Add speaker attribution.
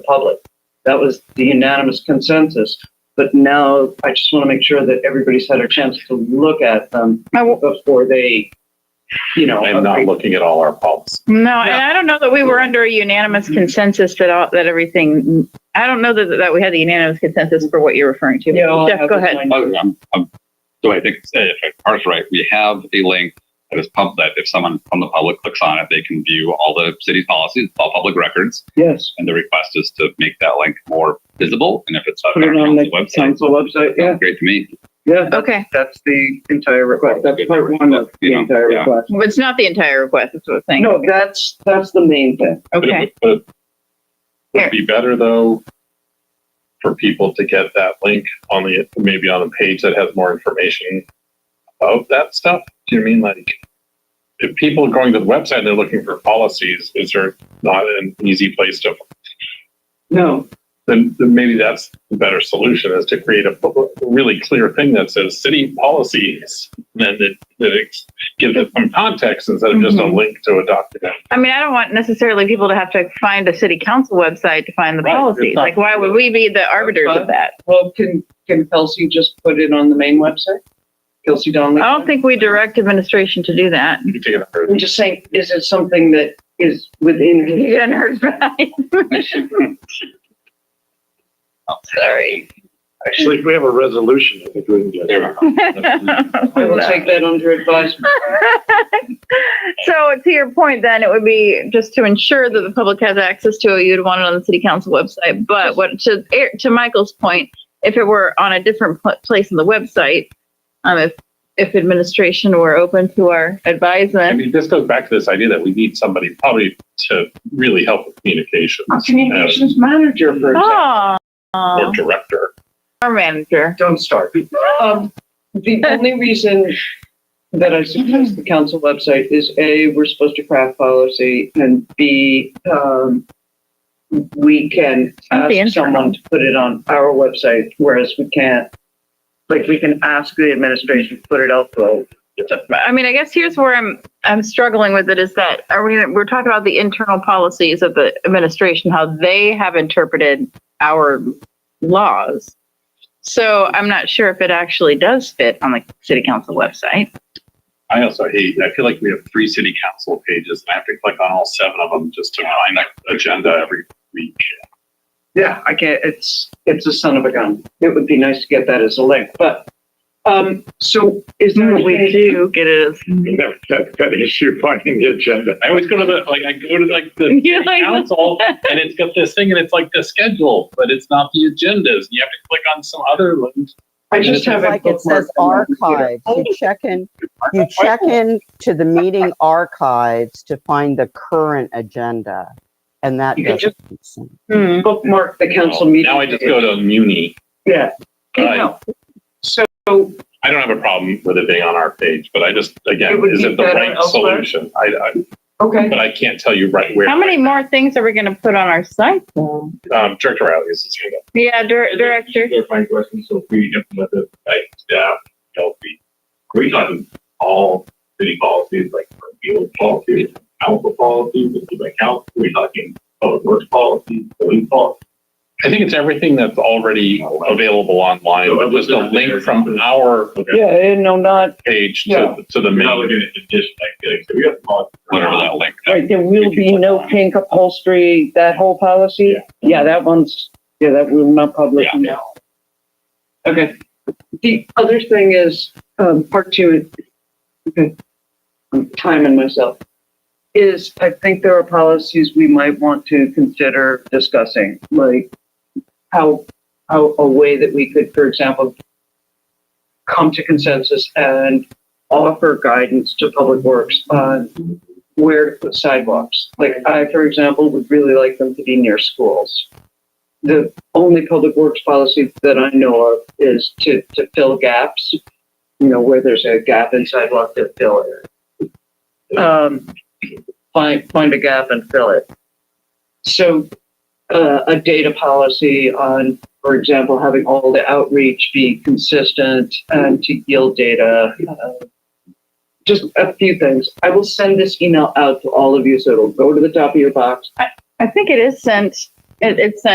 Speaker 1: the public. That was the unanimous consensus. But now I just want to make sure that everybody's had a chance to look at them
Speaker 2: I w-
Speaker 1: before they, you know.
Speaker 3: I'm not looking at all our policies.
Speaker 2: No, and I don't know that we were under a unanimous
Speaker 3: Mm-hmm.
Speaker 2: consensus that all, that everything, I don't know that, that we had the unanimous consensus for what you're referring to.
Speaker 1: Yeah, I'll
Speaker 2: Jeff,
Speaker 1: have
Speaker 2: go
Speaker 1: this
Speaker 2: ahead.
Speaker 1: line.
Speaker 4: Oh, I'm, I'm, so I think uh, if Art's right, we have a link that is pub that if someone from the public clicks on it, they can view all the city's policies, all public records,
Speaker 1: Yes.
Speaker 4: and the request is to make that link more visible. And if it's up
Speaker 1: Put
Speaker 4: on
Speaker 1: it on
Speaker 4: our
Speaker 1: the
Speaker 4: council website,
Speaker 1: council website. Yeah,
Speaker 4: sounds great to me.
Speaker 1: yeah.
Speaker 2: Okay,
Speaker 1: That's the entire request. That's part one of the
Speaker 4: Yeah,
Speaker 1: entire
Speaker 4: yeah.
Speaker 1: request.
Speaker 2: Well, it's not the entire request, that's what I'm saying.
Speaker 1: No, that's, that's the main thing.
Speaker 3: But it
Speaker 2: Okay,
Speaker 3: would- But it
Speaker 2: Here.
Speaker 3: would be better though for people to get that link on the, maybe on a page that has more information about that stuff. Do you mean like? If people are going to the website and they're looking for policies, is there not an easy place to,
Speaker 1: No,
Speaker 3: then, then maybe that's the better solution is to create a bu- really clear thing that says city policies. And then it, that it gives it some context instead of just a
Speaker 2: Mhm.
Speaker 3: link to a document.
Speaker 2: I mean, I don't want necessarily people to have to find a city council website to find the
Speaker 3: Right, it's
Speaker 2: policies.
Speaker 3: not-
Speaker 2: Like, why would we be the arbiters of that?
Speaker 1: well, can, can Kelsey just put it on the main website? Kelsey Donnelly?
Speaker 2: I don't think we direct administration to do that.
Speaker 3: You can take it.
Speaker 1: I'm just saying, is it something that is within his
Speaker 2: You didn't heard right.
Speaker 1: Sorry.
Speaker 5: Actually, if we have a resolution, I think we can get.
Speaker 4: There we
Speaker 1: I will take that under advisement.
Speaker 2: So to your point, then it would be just to ensure that the public has access to it, you'd want it on the city council website. But what to, Er- to Michael's point, if it were on a different pl- place on the website, um, if, if administration were open to our
Speaker 3: I
Speaker 2: advisement.
Speaker 3: mean, this goes back to this idea that we need somebody probably to really help with communications.
Speaker 1: Our Ah, Communications manager, for example.
Speaker 2: Oh,
Speaker 3: uh, Or director.
Speaker 2: our manager.
Speaker 1: Don't start. Um, the only reason that I suggest the council website is A, we're supposed to craft policy, and B, um, we can
Speaker 2: Not the
Speaker 1: ask
Speaker 2: internal.
Speaker 1: someone to put it on our website, whereas we can't. Like, we can ask the administration to put it out though.
Speaker 2: I mean, I guess here's where I'm, I'm struggling with it is that, are we, we're talking about the internal policies of the administration, how they have interpreted our laws. So I'm not sure if it actually does fit on the city council website.
Speaker 3: I also hate, I feel like we have three city council pages and I have to click on all seven of them just to find an agenda every week.
Speaker 1: Yeah, I can't, it's, it's a son of a gun. It would be nice to get that as a link, but, um, so is there a way to?
Speaker 2: Mm-hmm. do get it as.
Speaker 5: That, that, that issue finding the agenda.
Speaker 3: I always go to the, like, I go to like the
Speaker 2: You're
Speaker 3: city
Speaker 2: like-
Speaker 3: council and it's got this thing and it's like the schedule, but it's not the agendas. You have to click on some other link.
Speaker 1: I just have
Speaker 6: like it says archives. You
Speaker 1: Oh.
Speaker 6: check in, you check in to the meeting archives to find the current agenda. And that
Speaker 1: You can
Speaker 6: doesn't make sense.
Speaker 2: Hmm.
Speaker 1: Bookmark the council meeting.
Speaker 3: Oh, Now I just go to Muni.
Speaker 1: Yeah.
Speaker 3: but I-
Speaker 1: No. So
Speaker 3: I don't have a problem with it being on our page, but I just,
Speaker 1: It
Speaker 3: again,
Speaker 1: would
Speaker 3: is
Speaker 1: be
Speaker 3: it the
Speaker 1: better
Speaker 3: right
Speaker 1: elsewhere.
Speaker 3: solution? I, I,
Speaker 1: Okay,
Speaker 3: but I can't tell you right where.
Speaker 2: How many more things are we gonna put on our site? though?
Speaker 3: Um, Director Riley is his hand up.
Speaker 2: Yeah, dir- director.
Speaker 7: They're fine questions, so if we implement it, like staff, healthy. We done all city policies, like for field policies, council policies, if you like council, we're talking public works policies, police policy.
Speaker 3: I think it's everything that's already available online, but just a link from our
Speaker 1: yeah, and no, not,
Speaker 3: page
Speaker 1: Yeah.
Speaker 3: to, to the
Speaker 7: We're not looking
Speaker 3: main.
Speaker 7: at addition, like, like, so we have. policies.
Speaker 4: Whatever that link.
Speaker 1: right, there will be no pink upholstery, that whole policy? Yeah, that one's, yeah, that will not publish now. Okay. The other thing is, um, part two, okay, I'm timing myself, is I think there are policies we might want to consider discussing, like how, how, a way that we could, for example, come to consensus and offer guidance to Public Works on where to put sidewalks. Like I, for example, would really like them to be near schools. The only public works policy that I know of is to, to fill gaps, you know, where there's a gap in sidewalk to fill it. Um, find, find a gap and fill it. So, uh, a data policy on, for example, having all the outreach be consistent and to yield data. uh, just a few things. I will send this email out to all of you, so it'll go to the top of your box.
Speaker 2: I think it is sent, it, it's sent